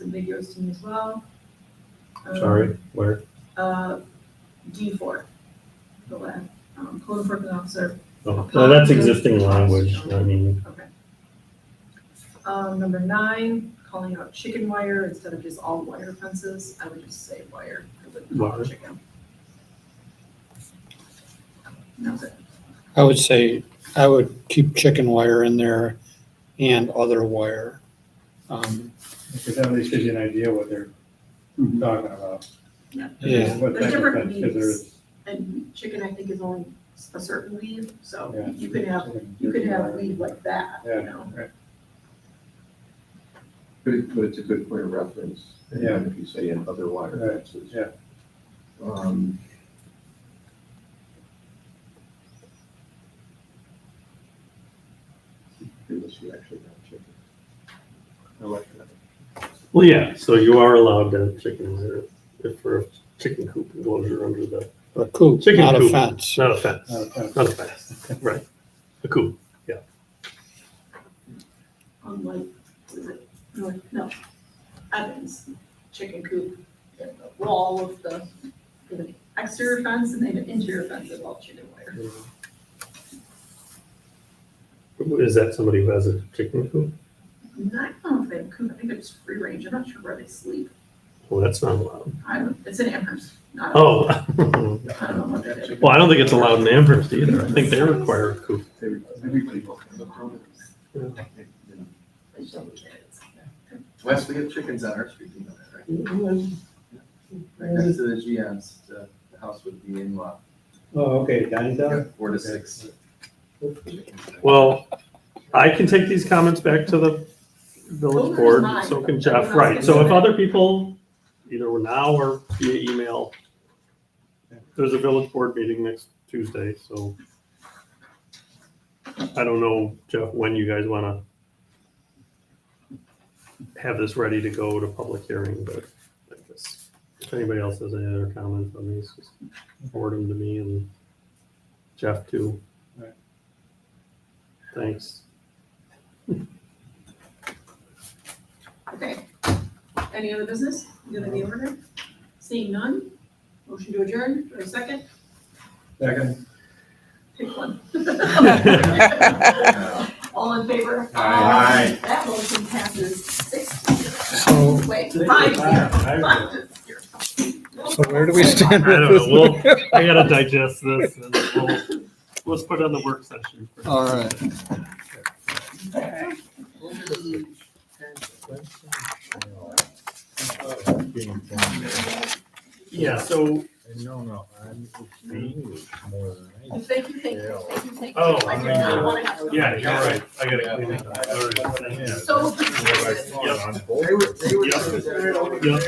ambiguous to me as well. Um, Sorry, where? Uh, D four, the last, um, code enforcement officer, Oh, well, that's existing language, I mean, okay. Um, number nine, calling out chicken wire instead of just all wire fences, I would just say wire, I wouldn't call Wire. it chicken. That's it. I would say, I would keep chicken wire in there and other wire. Um, Because that at least gives you an idea what they're talking about. Yeah. Yeah. What There's type of different fence, 'cause there meanings. is- And chicken, I think, is only a certain weed, so Yeah. you could have, you could have weed like that, you Yeah. know? But it- but it's a good point of reference. And Yeah. If you say in other water Right, fences. yeah. Um, Unless you actually have chickens. I like that. well, yeah, so you are allowed to have chickens there if for a chicken coop enclosure under the, Oh. A coop, Chicken not a coop. fence. not a fence, Not a Uh, fence. not a fence, right, a coop. on like, what is it, North, no, Evans, chicken coop, they have the wall of the, with an exterior fence and they have an interior fence of all chicken wire. Is that somebody who has a chicken coop? And I don't know if they have coop, I think it's free range, I'm not sure where they sleep, Well, that's not allowed. I don't, it's in Amherst, not, I Oh, don't know what that is. well, I don't think it's allowed in Amherst either, I think they require a coop. Everybody will have a problem. Yeah. It's just kids. Wes, we have chickens on our street, you know that, right? Right Mm. next to the GM's, the the house would be in law, Oh, okay, Danny's out? four to six. chickens. Well, I can take these comments back to the village Those are board, mine. so can Everyone Jeff, else right, can so if submit. other people, either now or via email, there's a village board meeting next Tuesday, so I don't know, Jeff, when you guys wanna have this ready to go to public hearing, but I guess if anybody else has any other comments on these, just forward them to me and Jeff too. Right. Thanks. Okay, any other business, you have any order? Seeing none, motion to adjourn, or second, Second. pick one. Uh, All in favor? Aye. That motion passes six to zero. So, Wait, five zero. Five to zero. so where do we stand? I don't with know, this? I gotta digest this and then we'll, let's put it on the work session. first. All right. Yeah, so, No, no, I'm English more than I. Thank you, thank you, thank you, thank you. Oh, I do I not mean, want to have. yeah, you're right, I gotta clean it up, all right, thank you. So confused. I'm both. They were, they were. Yep. they were- Yep.